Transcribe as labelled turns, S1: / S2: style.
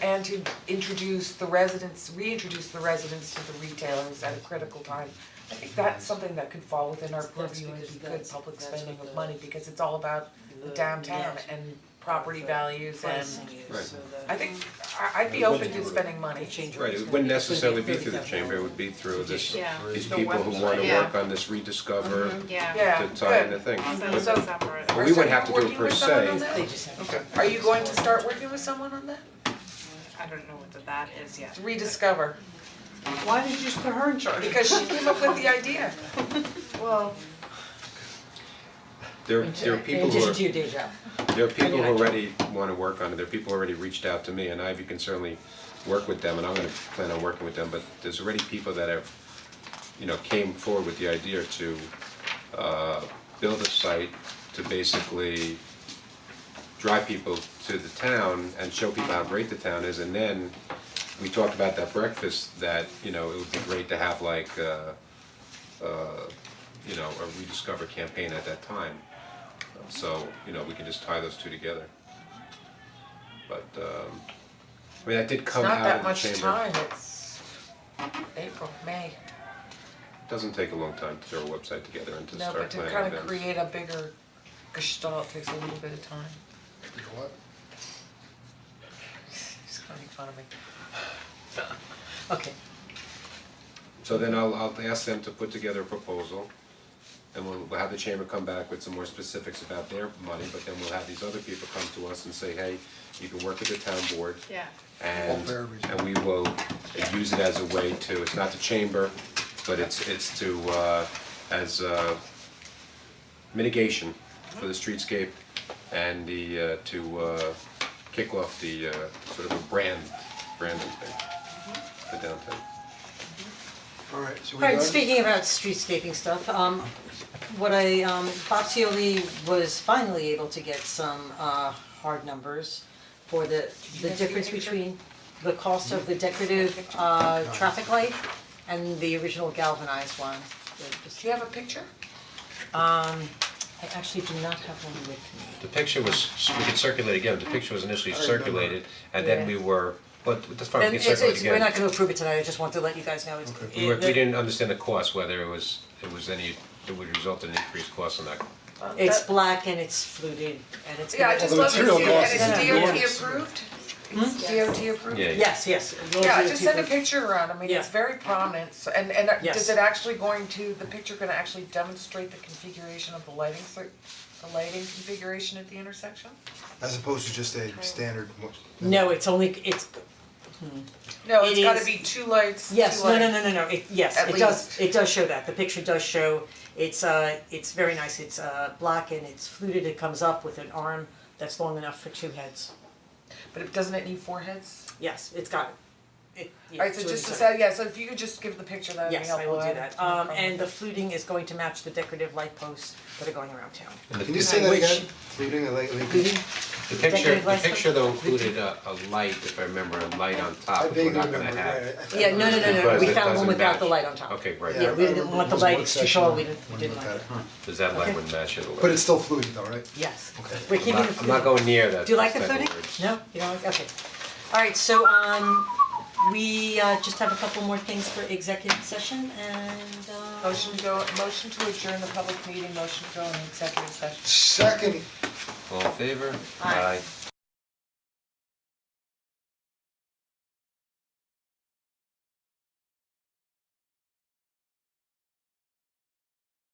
S1: trying to introduce the residents, reintroduce the residents to the retailers at a critical time. I think that's something that could fall within our
S2: That's
S1: purview and
S2: because
S1: be good
S2: that's-
S1: public
S2: that's
S1: spending
S2: what
S1: of
S2: the-
S1: money, because it's all about the
S2: the
S1: downtown
S2: net
S1: and property
S2: of the
S1: values and
S2: Pricing is
S3: Right.
S2: so
S1: I
S2: that
S1: think, I I'd be
S3: And when
S1: open
S3: you
S1: to
S3: were-
S1: spending money.
S2: the change
S3: Right,
S2: order's
S3: it
S2: gonna
S3: wouldn't
S2: be-
S3: necessarily
S2: it's gonna
S3: be through the chamber, it would be through this,
S4: Yeah.
S3: these
S1: The
S3: people who wanna
S4: website.
S3: work on this rediscover
S4: Mhm. Yeah.
S1: Yeah,
S3: to tie in the
S1: good.
S3: thing.
S4: So
S3: But-
S4: it's a separate.
S3: But we would have to do
S1: Are
S3: it per
S1: you working with someone on
S3: se.
S1: that?
S2: They just have.
S3: Okay.
S1: Are you going to start working with someone on that?
S4: I don't know what the that is yet.
S1: Rediscover,
S2: Why did you just put her in charge?
S1: because she came up with the idea.
S4: Well,
S3: There, there are people
S2: In
S3: who
S2: addition to
S3: are,
S2: your day job.
S3: there are people
S2: Yeah, I
S3: who
S2: don't-
S3: already wanna work on it, there are people who already reached out to me, and Ivy can certainly work with them, and I'm gonna plan on working with them, but there's already people that have, you know, came forward with the idea to, uh, build a site to basically drive people to the town and show people how great the town is, and then we talked about that breakfast, that, you know, it would be great to have like, uh, uh, you know, a rediscover campaign at that time. So, you know, we can just tie those two together. But, um, I mean, that did
S1: It's
S3: come
S1: not
S3: out
S1: that
S3: of the
S1: much
S3: chamber.
S1: time, it's April, May,
S3: Doesn't take a long time to throw a website together and to
S1: no,
S3: start
S1: but to
S3: planning
S1: kind of
S3: events.
S1: create a bigger gestalt takes a little bit of time. She's kind of making fun of me.
S2: Okay,
S3: So then I'll, I'll ask them to put together a proposal, and we'll, we'll have the chamber come back with some more specifics about their money, but then we'll have these other people come to us and say, hey, you can work with the town board.
S4: yeah,
S3: And,
S5: All fair reason.
S3: and we will uh, use it as a way to, it's not the chamber, but it's, it's to, uh, as, uh, mitigation for the streetscape and the, uh, to, uh, kick off the, uh, sort of a brand, branding thing, the downtown.
S5: Alright, so we
S2: alright,
S5: done?
S2: speaking about streetscaping stuff, um, what I, um, Bob Cioli was finally able to get some, uh, hard numbers for the, the
S1: guys see the
S2: difference
S1: picture?
S2: between the cost of the decorative, uh, traffic light and the original galvanized one, They're just-
S1: Do you have a picture?
S2: I actually do not have one with me.
S3: The picture was, we could circulate again, the picture was initially circulated, and then we
S2: Yeah.
S3: were, but that's fine,
S2: And
S3: we can
S2: it's,
S3: circulate
S2: it's, we're not
S3: again.
S2: gonna approve it tonight, I just want to let you guys know it's.
S3: We were, we didn't understand the cost, whether it was, it was any, it would result in increased cost on that.
S2: It's black and it's fluted and it's.
S1: Yeah, I
S2: gonna-
S1: just
S5: the
S1: love to see
S5: material
S1: it,
S5: cost
S1: and
S2: is
S1: it's
S5: enormous.
S1: DOT approved?
S2: Hmm?
S1: It's DOT approved?
S3: Yeah.
S2: Yes, yes. we'll
S1: Yeah,
S2: do
S1: just send a
S2: people-
S1: picture around, I mean, it's
S2: Yeah.
S1: very prominent, so, and, and uh,
S2: Yes.
S1: is it actually going to, the picture gonna actually demonstrate the configuration of the lighting, cir- the lighting configuration at the intersection?
S5: As opposed to just a standard. mo-
S2: No, it's only, it's,
S1: No,
S2: It
S1: it's gotta
S2: is-
S1: be two lights, two lights.
S2: yes, no, no, no, no, no, it, yes,
S1: At
S2: it does, it does show that, the picture does show, it's uh, it's very nice, it's uh, black and it's fluted, it comes up with an arm that's long enough for two heads,
S1: But it- doesn't it need four heads?
S2: yes, it's got it. It, yeah,
S1: Alright,
S2: it's
S1: so
S2: really
S1: just to
S2: good.
S1: say, yeah, so if you could just give the picture, that would be
S2: Yes, I
S1: helpful.
S2: will do
S1: have
S2: that,
S1: no
S2: um,
S1: problem
S2: and the
S1: with
S2: fluting is going to match the decorative light posts that are going around town.
S3: And the-
S5: Can you say that
S2: Which-
S5: again? Leading a light, leading?
S3: The picture,
S2: Decorative
S3: the
S2: lights.
S3: picture though included a, a light, if I remember, a light on
S5: I
S3: top, which we're
S5: vaguely
S3: not
S5: remember,
S3: gonna have.
S5: right, I- I thought-
S2: Yeah, no, no, no, no,
S3: Because
S2: we
S3: it
S2: found one
S3: doesn't
S2: without the
S3: match.
S2: light on top.
S3: Okay, right,
S5: Yeah,
S2: Yeah,
S5: I
S3: right,
S2: we didn't
S5: remember
S2: want the
S5: there was one
S2: light, it's too
S5: section
S2: tall, we
S5: when
S2: didn't, we
S5: we
S2: didn't
S5: looked
S2: like
S5: at
S2: it.
S5: it.
S3: does that light would match it a little?
S5: But it's still fluted though, right?
S2: Yes,
S5: Okay.
S2: we're keeping the
S3: I'm
S2: fluting.
S3: not- I'm not going near that,
S2: Do you like the
S3: those type
S2: fluting?
S3: of words.
S2: No, you don't like, okay. Alright, so um, we uh just have a couple more things for executive session and
S1: that.
S2: uh.
S1: Motion to go, motion to adjourn the public meeting, motion to go in executive session.
S5: Second,
S3: All in favor?
S2: Aye.
S3: Aye.